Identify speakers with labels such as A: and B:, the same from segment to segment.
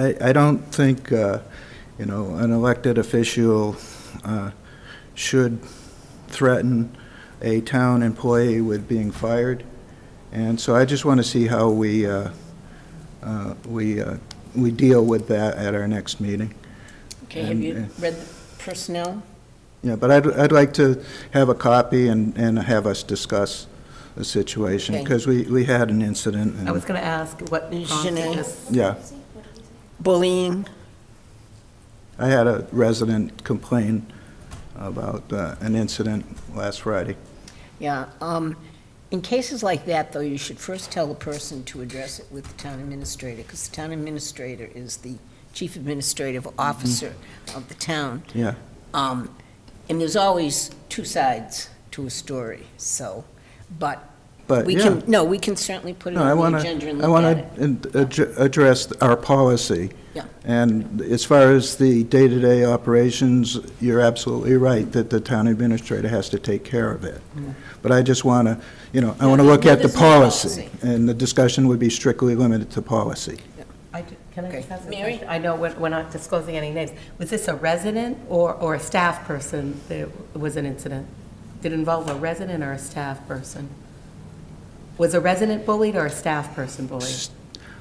A: I, I don't think, uh, you know, an elected official uh, should threaten a town employee with being fired. And so I just want to see how we, uh, uh, we, uh, we deal with that at our next meeting.
B: Okay, have you
A: And,
B: read the personnel?
A: Yeah, but I'd, I'd like to have a copy and, and have us discuss the situation,
B: Okay.
A: because we, we had an incident. and-
C: I was going to ask what prompted
B: Janine.
C: this.
A: Yeah,
B: Bullying?
A: I had a resident complain about uh, an incident last Friday.
B: Yeah, um, in cases like that, though, you should first tell the person to address it with the town administrator, because the town administrator is the chief administrative officer
A: Mm-hmm.
B: of the town.
A: Yeah,
B: Um, and there's always two sides to a story, so, but
A: but,
B: we
A: yeah.
B: can, no, we can certainly put it
A: No, I
B: on
A: want
B: the agenda and
A: to, I
B: look at it.
A: want to address our policy.
B: Yeah.
A: And as far as the day-to-day operations, you're absolutely right that the town administrator has to take care of it. But I just want to, you know, I want to look at the
B: There's no
A: policy,
B: policy.
A: and the discussion would be strictly limited to policy.
C: I ju- Can I
B: Okay.
C: just ask a
B: Mary?
C: question? I know we're we're not disclosing any names. Was this a resident or, or a staff person There was an incident? Did it involve a resident or a staff person? Was a resident bullied or a staff person bullied?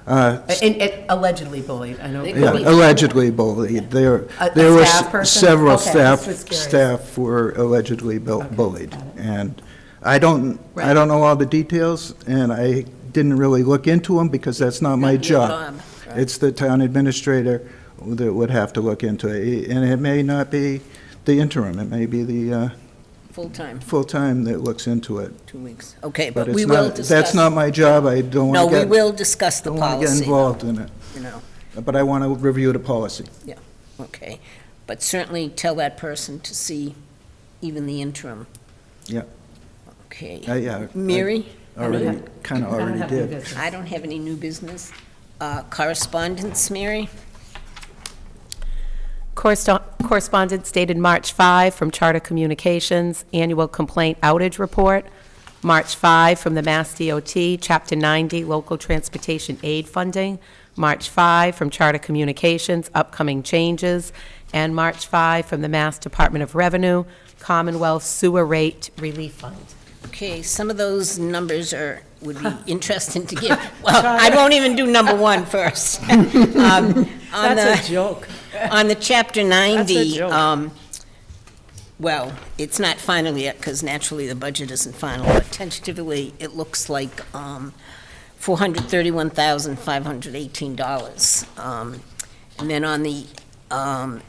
A: Uh,
C: And- and Allegedly bullied, I know.
B: They
A: Yeah,
B: Could be-
A: allegedly bullied. There,
C: A- a
A: there were
C: staff
A: s-
C: person?
A: several
C: Okay,
A: staff,
C: just was curious.
A: staff were allegedly bu-
C: Okay,
A: bullied.
C: got it.
A: And I don't, I
C: Right.
A: don't know all the details, and I didn't really look into them because that's not my
B: Not your
A: job.
B: job, right.
A: It's the town administrator that would have to look into it. And it may not be the interim, it may be the uh,
B: Full-time,
A: full-time that looks into it.
B: two weeks. Okay,
A: But
B: but we
A: it's
B: will
A: not,
B: discuss.
A: that's not my job. I don't
B: No,
A: want to
B: we
A: get,
B: will discuss the
A: don't want to get
B: policy,
A: involved in it.
B: you know,
A: But I want to review the policy.
B: okay. But certainly tell that person to see even the interim.
A: Yeah.
B: Okay.
A: I- Yeah. I-
B: Mary,
A: already, kind of
C: I
A: Oh,
C: don't
A: already
C: have any
A: did.
C: business.
B: I don't have any new business. Uh, Correspondence, Mary?
C: Correspo- Correspondence dated March 5 from Charter Communications, Annual Complaint Outage Report, March 5 from the Mass DOT, Chapter 90, Local Transportation Aid Funding, March 5 from Charter Communications, Upcoming Changes, and March 5 from the Mass Department of Revenue, Commonwealth Sewer Rate Relief Fund.
B: Okay, some of those numbers are, would be interesting to give. Well, I won't even do number one first. Um, That's
D: That's a joke.
B: On the Chapter 90,
D: joke.
B: um, well, it's not final yet, because naturally the budget isn't final, but tentatively, it looks like um, $431,518. Um, And then on the um,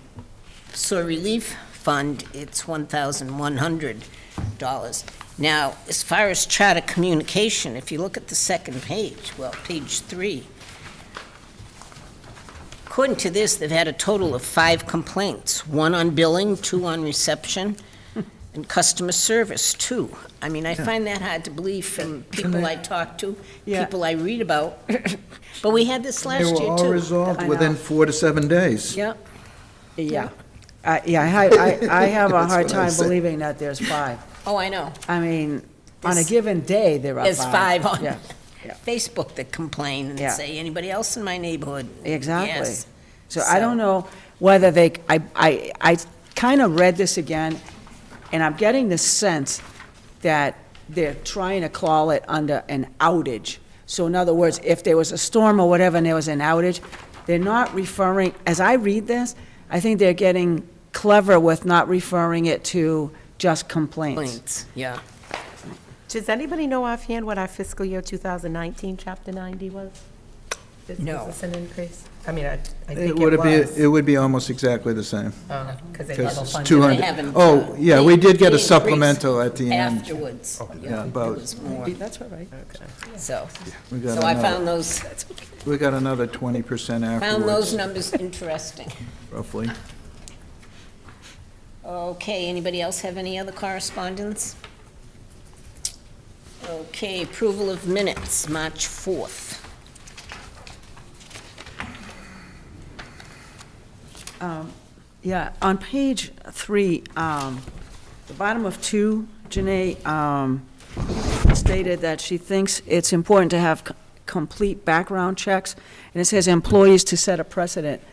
B: Soil Relief Fund, it's $1,100. Now, as far as charter communication, if you look at the second page, well, page three, According to this, they've had a total of five complaints, one on billing, two on reception, and customer service, two. I mean, I find that hard to believe from people I talk to,
D: Yeah.
B: people I read about, but we had this last
A: They
B: year, too.
A: were all resolved within four to seven days.
B: Yeah,
D: Yeah. I- Yeah, I, I I have a
A: That's
D: hard
A: what I
D: time
A: said.
D: believing that there's five.
B: oh, I know.
D: I mean, on a
B: There's-
D: given day, there are five.
B: There's five on
D: Yeah, yeah.
B: Facebook that complain and
D: Yeah.
B: say, anybody else in my neighborhood?
D: Exactly.
B: Yes.
D: So I don't know whether they, I, I, I kind of read this again, and I'm getting the sense that they're trying to call it under an outage. So in other words, if there was a storm or whatever and there was an outage, they're not referring, as I read this, I think they're getting clever with not referring it to just complaints.
B: Complaints, yeah.
C: Does anybody know offhand what our fiscal year 2019 Chapter 90 was? Is-
B: No.
C: Is this an increase? I mean, I I think
A: It
C: it
A: would have
C: was.
A: been, it would be almost exactly the same.
C: Because they
A: Because
C: level
A: it's
C: funded.
A: 200.
B: They haven't,
A: Oh,
B: uh,
A: yeah, we did get a
B: they increased
A: supplemental at the end.
B: Afterwards,
A: Yeah,
B: yeah, it
A: about-
B: was more,
D: That's all right.
B: so.
A: We got
B: So I
A: another-
B: found those,
A: We got another 20%
B: found those
A: afterwards,
B: numbers interesting.
A: roughly.
B: Okay, anybody else have any other correspondence? Okay, approval of minutes, March 4th.
D: Um, Yeah, on page three, um, the bottom of two, Janae um, stated that she thinks it's important to have c- complete background checks, and it says employees to set a precedent